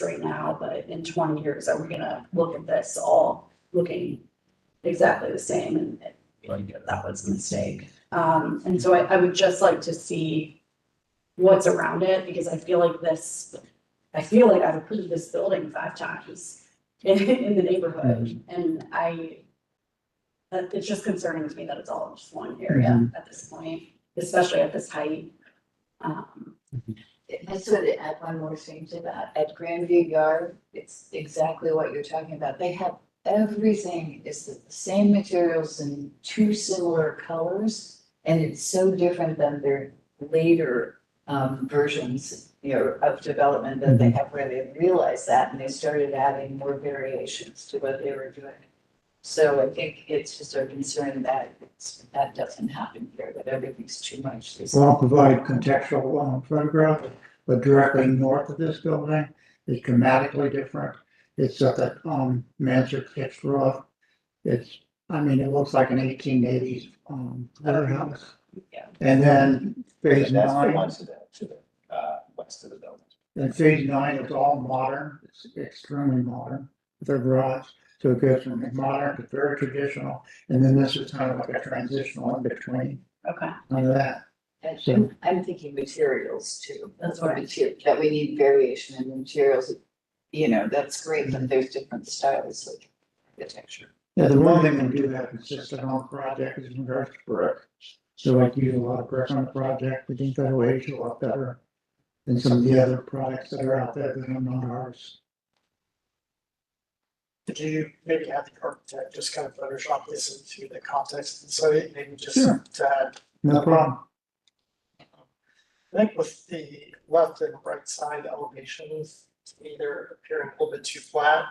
right now, but in twenty years, are we gonna look at this all looking exactly the same and and that was a mistake. Um, and so I, I would just like to see what's around it because I feel like this, I feel like I've approved this building five times in, in the neighborhood and I that it's just concerning to me that it's all in just one area at this point, especially at this height. Um, I just wanted to add one more thing to that. At Grandview Yard, it's exactly what you're talking about. They have everything is the same materials in two similar colors. And it's so different than their later um versions, you know, of development that they have where they realized that and they started adding more variations to what they were doing. So I think it's just our concern that it's, that doesn't happen here, that everything's too much. the same. I'll provide contextual uh, photograph, but directly north of this building is dramatically different. It's at that um Mansard pitched roof. It's, I mean, it looks like an eighteen eighties um warehouse. Yeah. And then phase And That's the nine, one to the, to the, uh, west of the building. and phase nine is all modern, it's extremely modern, their garage. So it goes from modern to very traditional, and then this is kind of like a transitional in between, okay, none of that. And So- I'm- I'm thinking materials too. That's what I- Mater- That we need variation in the materials, you know, that's great, but there's different styles of architecture. Yeah, the one thing we do have consistent on project is in regards to brick. So like use a lot of brick on the project, we think that will age a lot better than some of the other products that are out there that are not ours. Could you maybe have the architect just kind of Photoshop this into the context and so it maybe just Sure. to add, No problem. I think with the left and right side elevations either appearing a little bit too flat.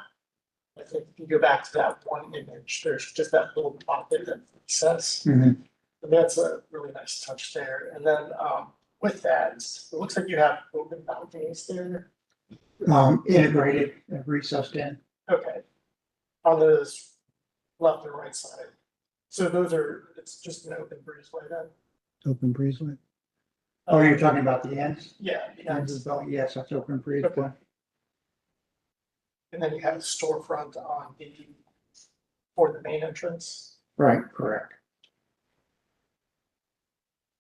I think if you go back to that one image, there's just that little pop there that says, Mhm. and that's a really nice touch there. And then um with that, it looks like you have open balconies there. Um, integrated, uh, recessed in. Okay. On those left and right side. So those are, it's just an open breezeway then? Open breezeway. Oh, you're talking about the ends? Yeah, the Ends is ends. about, yes, that's open breezeway. and then you have storefront on the, for the main entrance. Right, correct.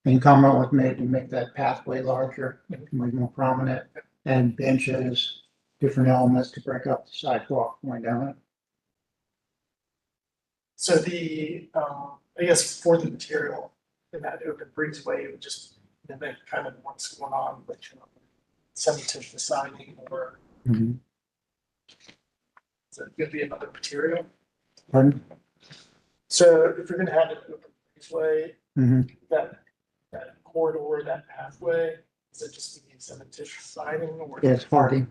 And comment was made to make that pathway larger, make more prominent, and benches, different elements to break up the sidewalk going down it. So the, um, I guess for the material in that open breezeway, it would just mimic kind of what's going on with you know, semi-tissue siding or is it gonna be another material? Pardon? So if you're gonna have an open breezeway, Mhm. that, that corridor, that pathway, is it just gonna be cementitious siding or? Yes, Hardy,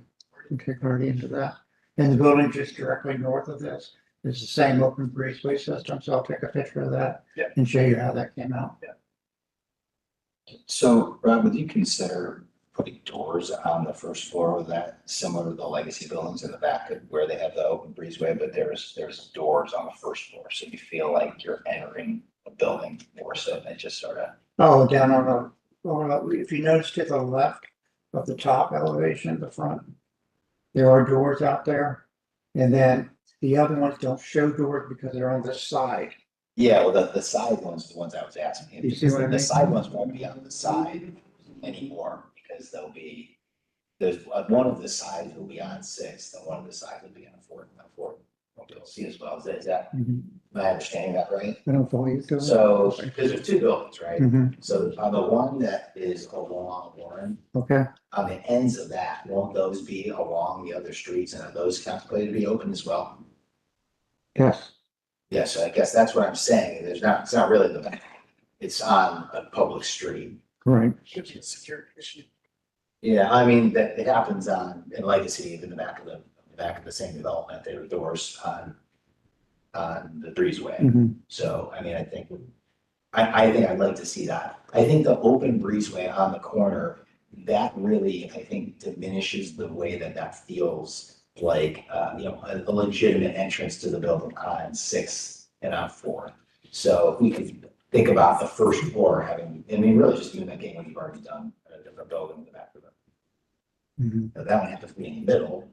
we can take Hardy into that. And the building just directly north of this is the same open breezeway system, so I'll take a picture of that Yeah. and show you how that came out. So, Rob, would you consider putting doors on the first floor of that, similar to the legacy buildings in the back of where they have the open breezeway, but there's, there's doors on the first floor, so you feel like you're entering a building more so than just sort of. Oh, down on the, well, if you notice to the left of the top elevation at the front, there are doors out there. And then the other ones don't show doors because they're on the side. Yeah, well, the, the side ones, the ones I was asking. You see what I because mean? The side ones won't be on the side anymore, because they'll be, there's, uh, one of the sides will be on sixth, and one of the sides will be on fourth, and the fourth. Won't be able to see as well, is that- is that, I am I understanding that right? Mm-hmm. don't follow you. Phil. So, because there's two buildings, right? Mhm, So on the one that is along Warren, Okay, on the ends of that, won't those be along the other streets and are those contemplated to be open as well? yes. Yeah, so I guess that's what I'm saying. There's not, it's not really the back. It's on a public street. Right. Should be a security issue. Yeah, I mean, that it happens on in Legacy in the back of the, the back of the same development. There were doors on on the breezeway. mhm. So, I mean, I think, I, I think I'd like to see that. I think the open breezeway on the corner, that really, I think diminishes the way that that feels like, uh, you know, a a legitimate entrance to the building on Sixth and on Fourth. So if we could think about the first floor having, I mean, really just mimicking what you've already done, at a different building in the back of it. mhm. Now, That one happens to be in the middle,